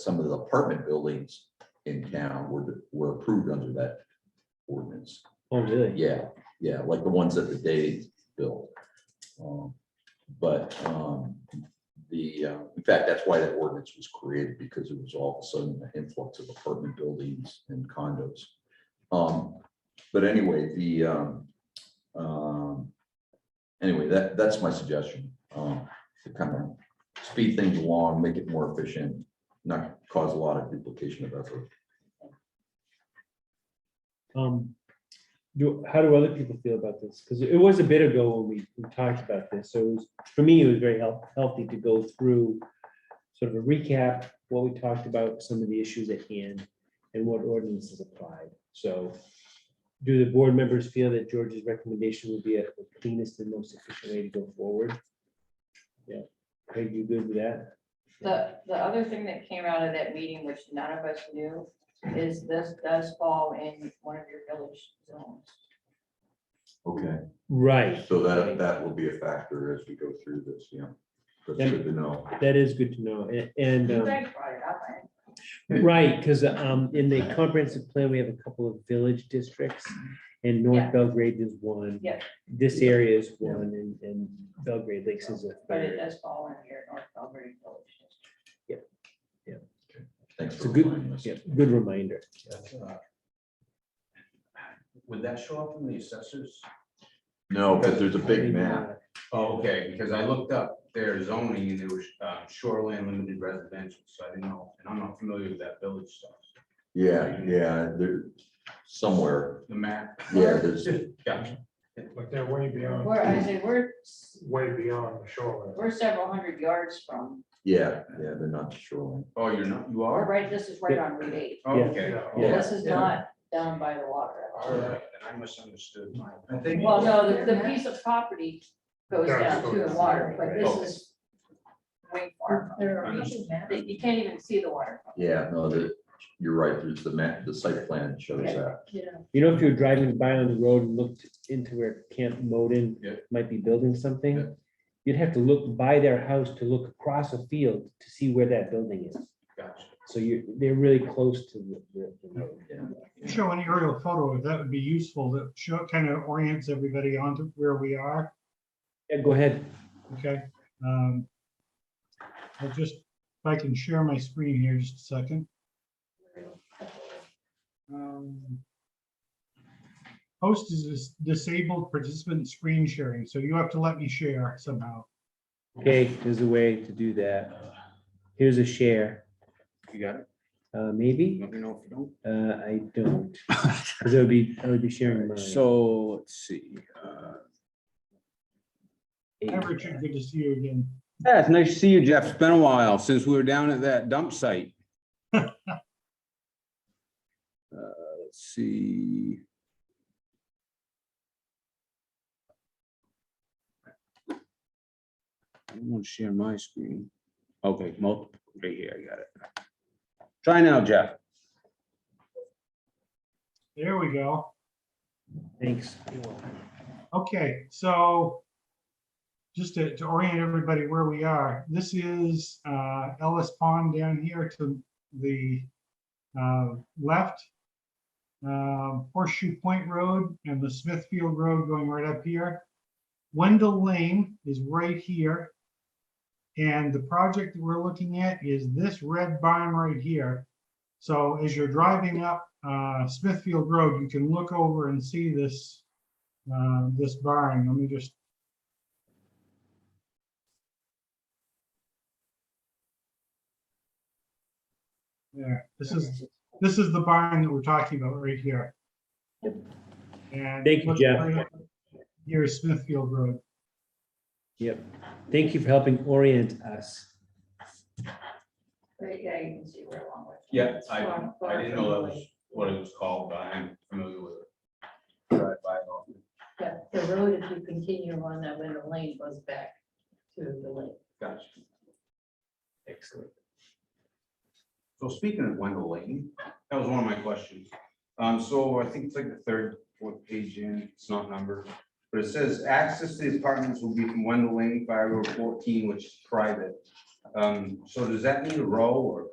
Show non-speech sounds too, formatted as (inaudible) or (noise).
some of the apartment buildings in town were, were approved under that ordinance. Oh, really? Yeah, yeah, like the ones that the day built. Um, But um, the, uh, in fact, that's why that ordinance was created, because it was all of a sudden an influx of apartment buildings and condos. Um, But anyway, the, um, um, anyway, that, that's my suggestion. um, To kind of speed things along, make it more efficient, not cause a lot of duplication of effort. Um, do, how do other people feel about this? Because it was a bit ago when we, we talked about this, so it was, for me, it was very help, healthy to go through sort of a recap, what we talked about, some of the issues at hand, and what ordinances applied, so do the board members feel that George's recommendation would be a- the cleanest and most efficient way to go forward? Yeah, Craig, you good with that? The, the other thing that came out of that meeting, which none of us knew, is this does fall in one of your village zones. Okay. Right, So that, that will be a factor as we go through this, yeah. That's good to know. that is good to know, a- and. You um, guys brought it up, I- Right, because um, in the comprehensive plan, we have a couple of village districts and North Yeah. Belgrade is one. Yeah. This area is one and, and Belgrade Lakes is a but it third. does fall in your North Belgrade Village. District. Thanks It's for a good- reminding us. Yeah, good reminder. Would that show up in the assessors? No, because there's a big map. uh, Oh, okay, because I looked up their zoning and it was uh, shoreline limited residential, so I didn't know, and I'm not familiar with that village stuff, Yeah, yeah, there, somewhere. the map. Yeah, there's, Gotcha. But they're way beyond, We're, I say, we're, s- way beyond the shoreline. we're several hundred yards from, yeah, yeah, they're not shoreline. Oh, you're not, you we're are? right, this is right on Route eight. Oh, Yeah. Okay. Yeah. This is not down by the water. at all. All right, then I misunderstood my. I think- Well, no, the, the piece of property goes Down down to the to- water, but Oh. this is way far. There are issues, man. from- You can't even see the water. from Yeah, no, that, you're right, there's the map, the site plan shows that. You know, if you're driving by on the road and looked into where Camp Moden Yeah. might be building Yeah. something, you'd have to look by their house to look across a field to see where that building is. Gotcha. So you're, they're really close to the- the, the road. Show an aerial photo, if that would be useful, that show, kind of orients everybody onto where we are, Yeah, go ahead. okay? Um, I'll just, if I can share my screen here just a second. Um, Host is dis- disabled participant screen sharing, so you have to let me share somehow. Okay, there's a way to do that. Here's a share, You got it? uh, maybe, Let me know if you don't. uh, I (laughs) don't, because I would be, I would be sharing mine. So, let's see. uh, Hi, Richard, good to see you again. Yeah, it's nice to see you, Jeff. It's been a while since we were down at that dump site. Uh, Let's see. I don't want to share my screen. Okay, multiple, right here, I got it. Try now, Jeff. There we go. Thanks. Okay, so just to, to orient everybody where we are, this is uh, Ellis Pond down here to the uh, left. Um, Horseshoe Point Road and the Smithfield Road going right up here. Wendell Lane is right here. And the project that we're looking at is this red barn right here. So as you're driving up uh, Smithfield Road, you can look over and see this uh, this barn, let me just. There, this is, this is the barn that we're talking about right here. And. Thank you, Jeff. Here is Smithfield Road. Yep. Thank you for helping orient us. Right, yeah, you can see where along with. Yeah, I, I didn't know that was what it was called, but I am familiar with it. Drive by it often. Yeah, the road, if you continue on that window lane, goes back to the lake. Gotcha. Excellent. So speaking of Wendell Lane, that was one of my questions. Um, so I think it's like the third, fourth page in, it's not numbered. But it says access to the apartments will be from oh Wendell Lane by Road fourteen, which is private. Um, so does that need a row or